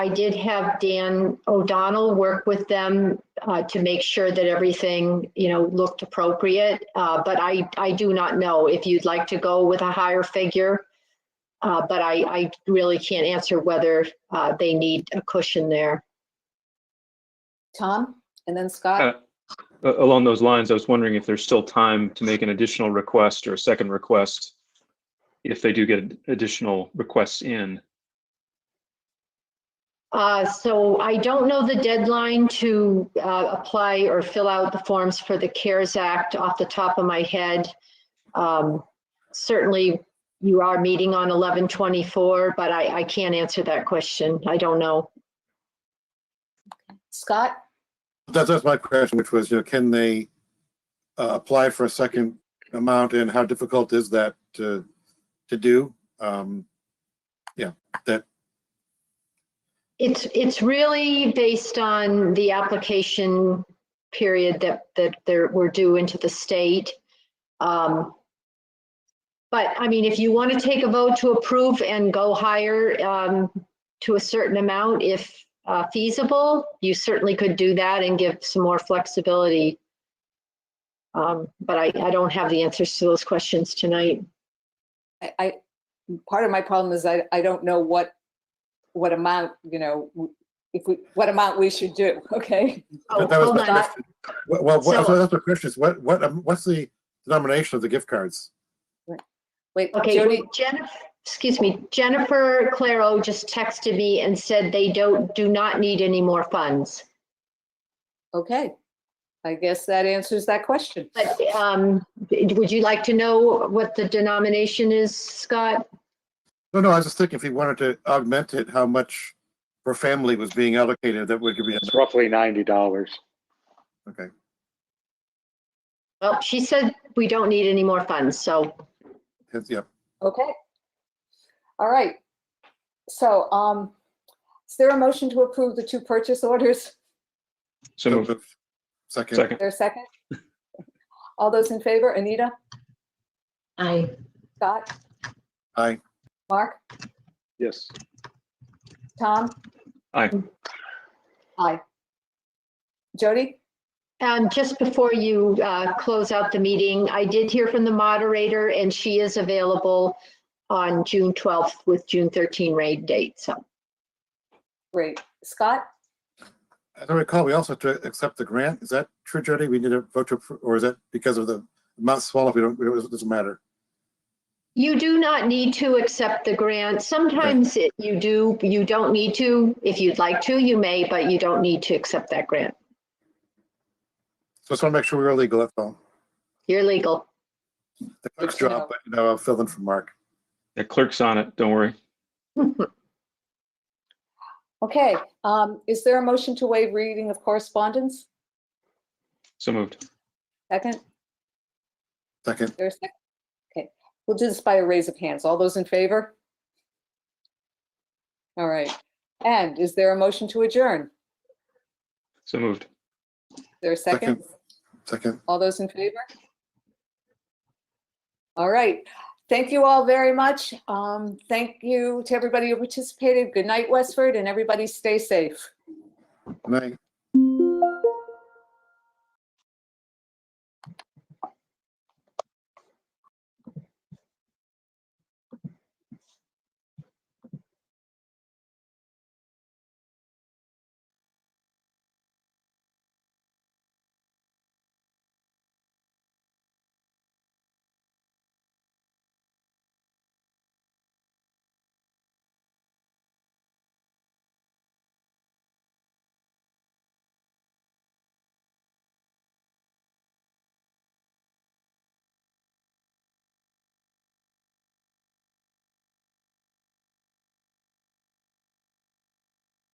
I did have Dan O'Donnell work with them uh, to make sure that everything, you know, looked appropriate. Uh, But I, I do not know if you'd like to go with a higher figure. Uh, But I, I really can't answer whether uh, they need a cushion there. Tom, and then Scott. Uh, A- Along those lines, I was wondering if there's still time to make an additional request or a second request if they do get additional requests in. Uh, So I don't know the deadline to uh, apply or fill out the forms for the CARES Act off the top of my head. Um, Certainly, you are meeting on 11/24, but I, I can't answer that question. I don't know. Scott, That's, that's my question, which was, you know, can they uh, apply for a second amount and how difficult is that to, to do? Um, It's, it's really based on the application period that, that there, we're due into the state. Um, But I mean, if you want to take a vote to approve and go higher um, to a certain amount, if uh, feasible, you certainly could do that and give some more flexibility. Um, But I, I don't have the answers to those questions tonight. I, I, part of my problem is I, I don't know what, what amount, you know, w- if we, what amount we should do, okay? Oh, But that was hold my on. question. Well, well, So- what- so that's my question is what, what, um, what's the denomination of the gift cards? Wait, Okay, Jody, Jennifer, excuse me, Jennifer Claro just texted me and said they don't, do not need any more funds. okay. I guess that answers that question. But um, would you like to know what the denomination is, Scott? No, no, I was just thinking if he wanted to augment it, how much per family was being allocated, that would be, It's roughly ninety dollars. okay. Well, she said we don't need any more funds, so That's- Yeah, Okay. All right. So, um, is there a motion to approve the two purchase orders? So moved. second, Second. There a second? All those in favor, Anita, I, Scott, aye. Mark, Yes. Tom? Aye. Aye. Jody? um, just before you uh, close out the meeting, I did hear from the moderator and she is available on June 12th with June 13 raid date, so. Great. Scott? As I recall, we also have to accept the grant. Is that true, Jody? We need a vote to, appro- or is that because of the amount swallowed? We don't, it doesn't matter. You do not need to accept the grant. Sometimes it- you do, you don't need to. If you'd like to, you may, but you don't need to accept that grant. So I just want to make sure we we're legal, that's all. You're legal. The clerk's Good to know. job, but you know, I'll fill in for Mark. The clerk's on it, don't worry. Okay, um, is there a motion to waive reading of correspondence? So moved. Second, Second, there's, second. okay, we'll do this by a raise of hands. All those in favor? All right. And is there a motion to adjourn? So moved. Is There a second? Second. second. All those in favor? All right. Thank you all very much. Um, thank you to everybody who participated. Good night, Westford, and everybody stay safe. Good night.